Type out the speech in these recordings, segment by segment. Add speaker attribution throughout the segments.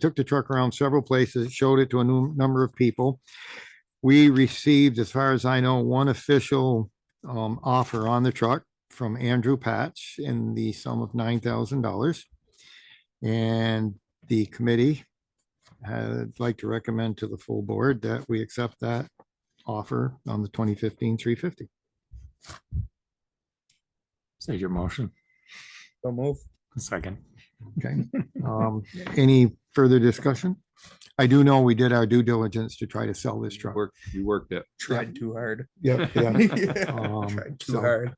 Speaker 1: took the truck around several places, showed it to a num- number of people. We received, as far as I know, one official um offer on the truck from Andrew Patch in the sum of nine thousand dollars. And the committee had like to recommend to the full board that we accept that offer on the 2015-350.
Speaker 2: Say your motion.
Speaker 3: So move.
Speaker 2: Second.
Speaker 1: Okay, um, any further discussion? I do know we did our due diligence to try to sell this truck.
Speaker 4: Worked, you worked it.
Speaker 3: Tried too hard.
Speaker 1: Yeah, Um,
Speaker 3: Tried too
Speaker 1: so-
Speaker 3: hard.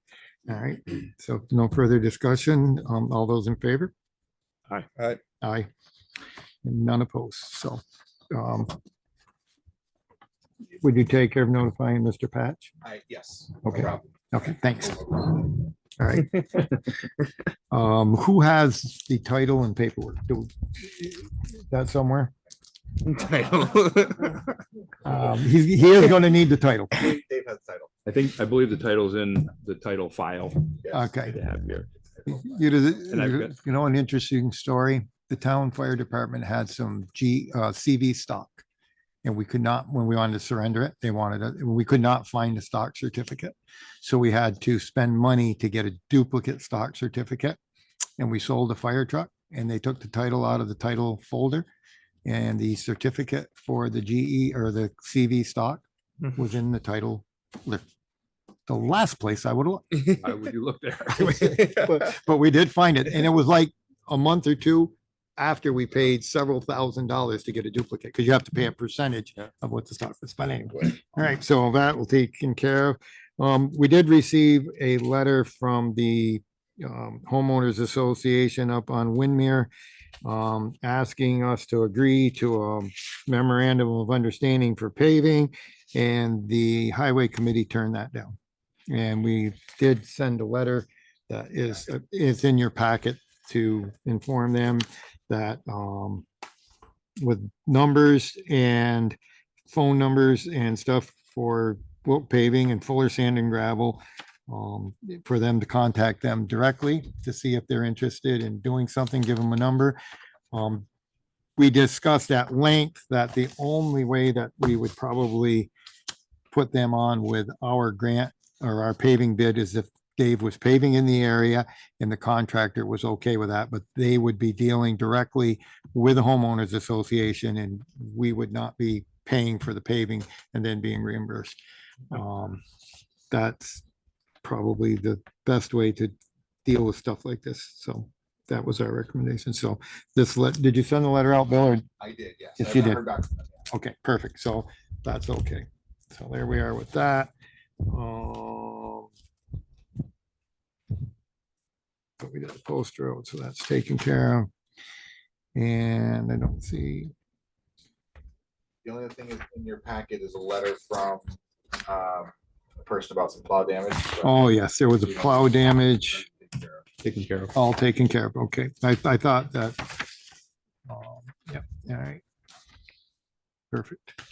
Speaker 1: All right, so no further discussion. Um, all those in favor?
Speaker 2: Aye.
Speaker 3: Aye.
Speaker 1: Aye. And None opposed, so, um. Would you take care of notifying Mr. Patch?
Speaker 4: I, yes.
Speaker 1: Okay, okay, thanks. All right. Um, who has the title and paperwork? Do, is that somewhere? Um, he, he is gonna need the title.
Speaker 3: Dave has title.
Speaker 4: I think, I believe the title's in the title file.
Speaker 1: Okay.
Speaker 4: to have here.
Speaker 1: You know, the-
Speaker 4: And I've
Speaker 1: you you know, an interesting story. The town fire department had some G, uh, CV stock. And we could not, when we wanted to surrender it, they wanted, it- we could not find a stock certificate. So we had to spend money to get a duplicate stock certificate. And we sold the fire truck and they took the title out of the title folder. And the certificate for the GE or the CV stock
Speaker 2: Mhm.
Speaker 1: was in the title. li- The last place I would look
Speaker 4: Why would you look there?
Speaker 1: Mm-hmm. but, but we did find it, and it was like a month or two after we paid several thousand dollars to get a duplicate, because you have to pay a percentage
Speaker 4: Yeah.
Speaker 1: of what the stock was spending. All right, so that will taken care of. Um, we did receive a letter from the um, homeowners association up on Windmere um, asking us to agree to a memorandum of understanding for paving, and the highway committee turned that down. And we did send a letter that is, is in your packet to inform them that, um, with numbers and phone numbers and stuff for Wilk paving and Fuller Sand and Gravel, um, for them to contact them directly to see if they're interested in doing something, give them a number. Um, we discussed at length that the only way that we would probably put them on with our grant or our paving bid is if Dave was paving in the area and the contractor was okay with that, but they would be dealing directly with the homeowners association and we would not be paying for the paving and then being reimbursed. Um, that's probably the best way to deal with stuff like this. So that was our recommendation. So this let, did you send the letter out, Bill? or-
Speaker 5: I did, yes.
Speaker 1: Yes,
Speaker 5: I've
Speaker 1: you
Speaker 5: not
Speaker 1: did.
Speaker 5: heard back from them yet.
Speaker 1: Okay, perfect. So that's okay. So there we are with that. Um, But we did a post road, so that's taken care of. And I don't see,
Speaker 5: The only other thing is in your packet is a letter from um, a person about some plow damage. so-
Speaker 1: oh yes, there was a plow damage,
Speaker 5: Take care of.
Speaker 4: Taken care of.
Speaker 1: all taken care of. Okay, I, I thought that. um, Yep, all right. Perfect.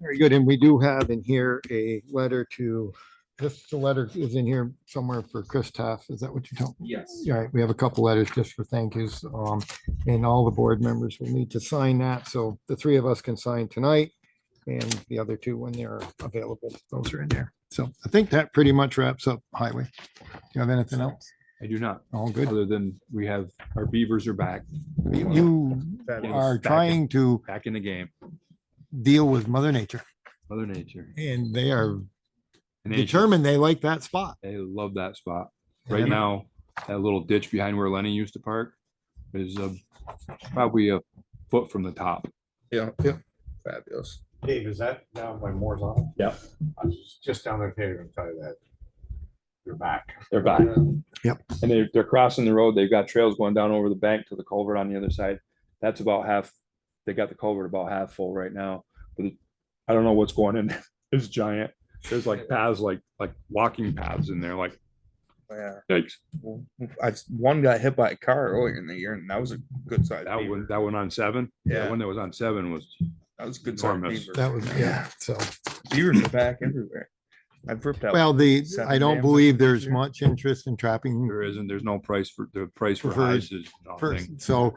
Speaker 1: Very good. And we do have in here a letter to, this, the letter is in here somewhere for Chris Taff. Is that what you're talking?
Speaker 5: Yes.
Speaker 1: All right, we have a couple letters just for thank yous. Um, and all the board members will need to sign that. So the three of us can sign tonight. And the other two when they're available, those are in there. So I think that pretty much wraps up highway. Do you have anything else?
Speaker 4: I do not,
Speaker 1: All good.
Speaker 4: other than we have, our beavers are back,
Speaker 1: You are trying to
Speaker 4: back in the game,
Speaker 1: deal with mother nature
Speaker 4: mother nature.
Speaker 1: and they are
Speaker 4: And they-
Speaker 1: determined they like that spot.
Speaker 4: They love that spot. Right
Speaker 1: And-
Speaker 4: now, that little ditch behind where Lenny used to park is uh, probably a foot from the top.
Speaker 3: Yeah, yeah. Fabulous.
Speaker 6: Dave, is that down by Moore's Law?
Speaker 4: Yep.
Speaker 6: I was just down there, Peter, and tell you that. You're back.
Speaker 4: They're back.
Speaker 1: Yep.
Speaker 4: And they're, they're crossing the road. They've got trails going down over the bank to the culvert on the other side. That's about half, they got the culvert about half full right now. But I don't know what's going in. It's giant. There's like paths, like, like walking paths in there, like,
Speaker 3: Yeah.
Speaker 4: yikes.
Speaker 3: I, one got hit by a car earlier in the year and that was a good size.
Speaker 4: That
Speaker 3: beaver.
Speaker 4: one, that one on seven?
Speaker 3: Yeah.
Speaker 4: That one that was on seven was
Speaker 3: That was a good size.
Speaker 4: Enormous.
Speaker 3: beaver.
Speaker 1: That was, yeah, so.
Speaker 3: Beavers are back everywhere. I've ripped out.
Speaker 1: Well, the,
Speaker 3: Seven
Speaker 1: I don't
Speaker 3: dams
Speaker 1: believe there's
Speaker 3: year.
Speaker 1: much interest in trapping
Speaker 4: There isn't, there's no price for, the price for
Speaker 1: For-
Speaker 4: highs is nothing.
Speaker 1: first, so